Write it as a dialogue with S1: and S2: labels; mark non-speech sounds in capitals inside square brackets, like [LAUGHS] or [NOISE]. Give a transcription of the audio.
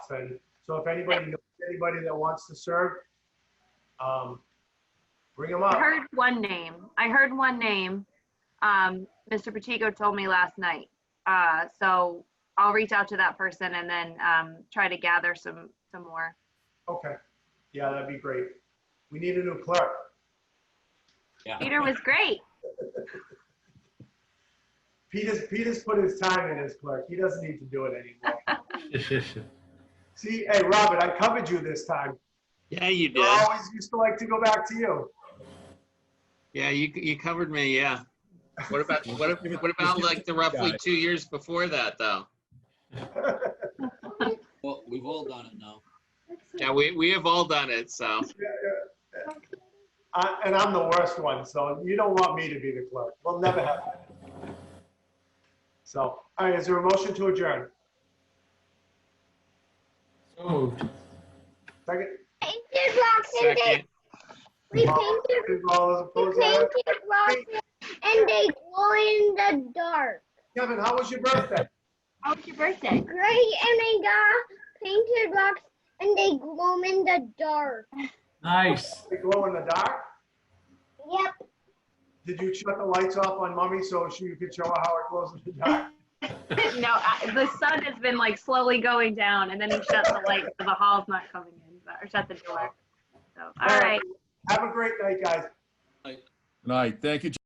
S1: and so if anybody, knows anybody that wants to serve, um, bring them
S2: I
S1: up.
S2: heard one name. I heard one name. Um, Mr. Pacheco told me last night. Uh, so I'll reach out to that person and then, um, try to gather some, some more.
S1: Okay, yeah, that'd be great. We need a new clerk.
S2: Peter was great.
S1: Peter's, Peter's put his time in as clerk. He doesn't need to do it
S3: [LAUGHS]
S1: anymore. See, hey, Robert, I covered you this time.
S4: Yeah, you
S1: You
S4: did.
S1: always used to like to go back to you.
S4: Yeah, you, you covered me, yeah. What about, what if- what about like the roughly two years before that, though?
S5: Well, we've all done it now.
S4: Yeah, we, we have all done it, so.
S1: I- And I'm the worst one, so you don't want me to be the clerk. We'll never have that. So, all right, is there a motion to adjourn?
S6: So moved.
S1: Second?
S3: Painted Roxanne, they,
S4: Second.
S3: we painted,
S1: All those
S3: we
S1: opposed, aye.
S3: painted Roxanne, and they glow in the dark.
S1: Kevin, how was your birthday?
S2: How was your birthday?
S3: Gray and I got painted rocks, and they glow in the dark.
S6: Nice.
S1: Did it glow in the dark?
S3: Yep.
S1: Did you shut the lights off on mommy so she could show her how it glows in the dark?
S2: [LAUGHS] No, I- the sun has been like slowly going down and then he shut the light, so the hall's not coming in, but, or shut the door. So, all right.
S1: Have a great night, guys.
S7: Good night. Thank you,